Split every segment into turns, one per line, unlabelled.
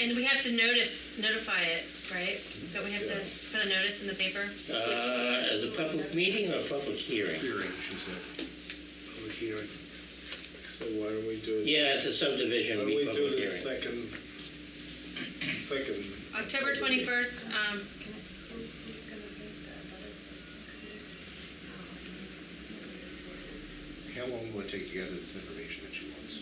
And we have to notice, notify it, right? But we have to s- put a notice in the paper?
Uh, As a public meeting or public hearing?
hearing, she said.
Public hearing.
So why don't we do it?
Yeah, it's a subdivision,
Why
it'd
don't
be
we
public
do the
hearing.
second, second?
October 21st, um,
How long will it take to gather this information that she wants?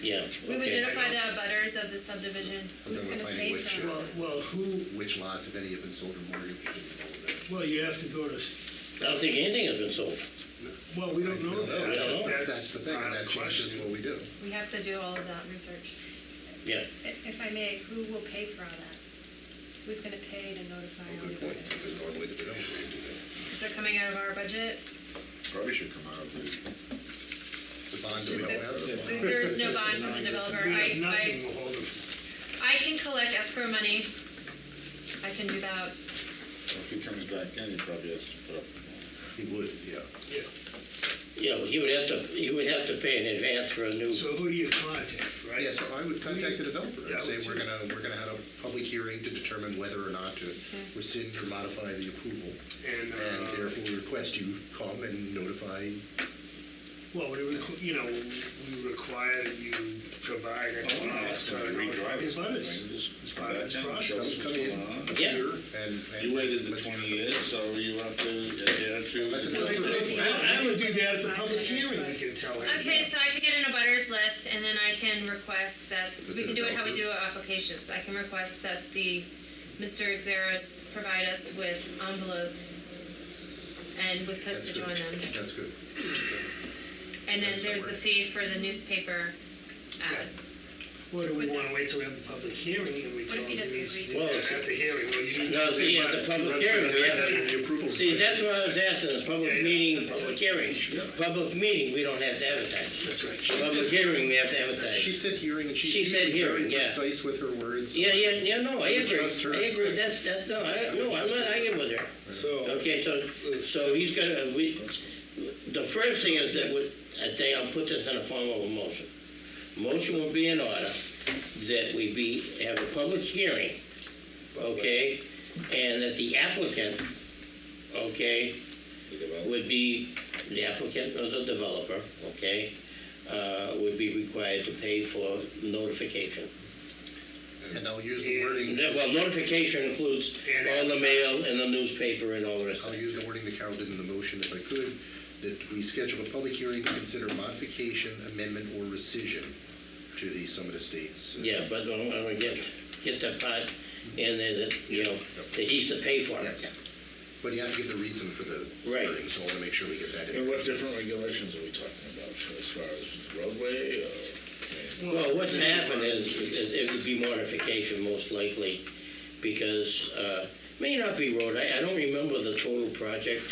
Yeah.
we would
okay.
notify the butters of the subdivision.
I'm
Who's
gonna
gonna
find
pay
which,
for it?
uh,
Well, well, who,
Which lots, if any, have been sold or mortgaged and all of that.
well, you have to go to, s-
I don't think anything has been sold.
well, we don't know that.
We don't know.
That's
That's-
the thing, and
not a
that changes
question.
what we do.
We have to do all of that research.
Yeah.
If if I may, who will pay for all that? Who's gonna pay to notify
Oh,
all
Good
the
point,
butters?
because normally we don't. we do that.
Is it coming out of our budget?
Probably should come out of the,
The bond that we don't have. the bond.
There is no bond from the developer.
We
I,
have nothing
I,
to hold it.
I can collect escrow money. I can do that.
if he comes back in, he probably has to put up.
He would, yeah.
Yeah, well, you would have to, you would have to pay in advance for a new,
So who do you contact, right?
Yeah, so I would contact the developer
Yeah, I
and say,
would
we're
too.
gonna, we're gonna have a public hearing to determine whether or not to rescind or modify the approval.
And,
And
uh,
therefore request you come and notify,
well, we, requ- you know, we require that you provide. a
Oh, no, that's gonna be redrive
His
this whole thing.
butters.
Just-
It's part of this
Come
process.
What's
come
going
in
on?
Yeah.
here and. and-
You waited the
let's-
twenty years, so you have to adhere to.
That's
Well,
another-
the-
I I would do that at the public hearing, we can tell him.
I say, so I can get in a butters list and then I can request that, we can do it how we do applications. I can request that the, Mr. Xeris provide us with envelopes and with
That's
postage
good.
on them.
That's good.
And then
That's
there's the
somewhere.
fee for the newspaper ad.
Well, do we want to wait till we have the public hearing and we tell
What
him
if he
he needs to,
doesn't agree to
Well,
at
it's-
the hearing, well, you need.
No, see, at the public hearing, we have to-
The approval.
see, that's what I was asking, the public meeting, public hearing. Public meeting, we don't have to advertise.
That's right.
Public hearing, we have to
She
advertise.
said hearing and she's.
She said
usually very
hearing, yeah.
Precise with her words.
Yeah, yeah, yeah, no, I agree.
trust her.
I agree, that's, that, no, I, no, I'm not arguing with her.
So,
Okay, so, so he's gonna, we, the first thing is that we, I think I'll put this in the form of a motion. Motion will be in order that we be, have a public hearing, okay? And that the applicant, okay, would be, the applicant or the developer, okay, uh, would be required to pay for notification.
And I'll use the wording,
Well, notification includes all the mail and the newspaper and all the rest of
I'll
it.
use the wording that Carol did in the motion if I could, that we schedule a public hearing to consider modification, amendment, or rescission to the Summit Estates. uh,
Yeah, but I'm gonna get, get that part in there that, you know, that he's to pay for
Yes.
it.
But you have to give the reason for the
Right.
hearing, so I want to make sure we get that in.
And what different regulations are we talking about as far as roadway or?
Well, what's happened is, it it would be modification most likely, because, uh, may not be road, I, I don't remember the total project,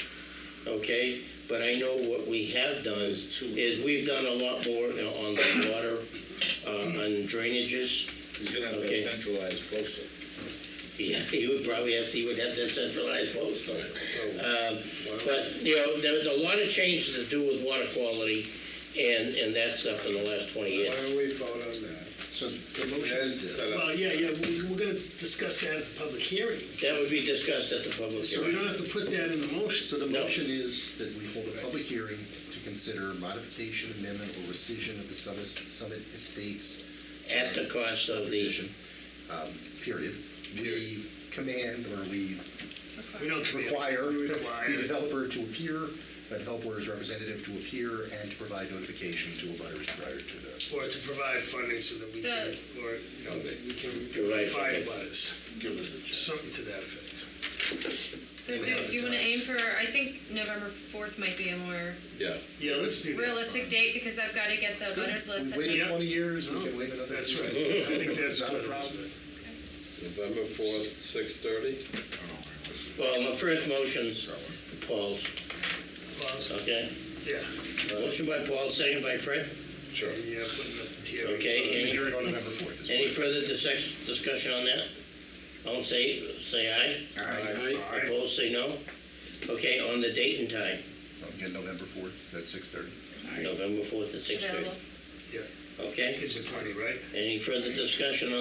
okay? But I know what we have done is we've done a lot more you know, on the water, uh, on drainages.
He's gonna have
Okay.
a centralized postal.
Yeah, he would probably have, he would have to centralize most of it.
so
Um, But, you know, there's a lot of changes to do with water quality and, and that stuff in the last 20
why
years.
don't we vote on that?
So the motion
That
is this.
is set up.
Well, yeah, yeah, we- we're going to discuss that at the public hearing.
That would be discussed at the public
So we
hearing.
don't have to put that in the motion.
So the
No.
motion is that we hold a public hearing to consider modification, amendment, or rescission of the Summit Summit Estates
At the cost of the,
subdivision, um, period. We command or we
We don't commit.
require
We
the
require.
developer to appear, the developer's representative to appear and to provide notification to abutters prior to the.
Or to provide funding so that we
So-
can, or, you know, that we can
Provide
notify
funding.
about us.
Give us a chance.
Something to that effect.
So do you want to aim for, I think November 4th might be a more
Yeah.
Yeah, let's do that.
realistic date because I've got to get the butters list.
We
that takes-
waited twenty years, we can wait another.
Oh, That's
year.
right. I think
It's
that's
not a
what it is.
problem.
November fourth, six thirty?
well, my first motion, Paul's,
Well,
okay?
Yeah.
Motion by Paul, second by Fred.
Sure.
Yeah, putting up the hearing.
Okay, any,
Hearing on November fourth is.
any further dis- discussion on that? All say, say aye.
Aye.
Opposed, say no. Okay, on the date and time,
Again, November fourth, at six thirty.
November 4th at 6:30.
Available.
Yeah,
Okay?
kids are funny, right?
Any further discussion on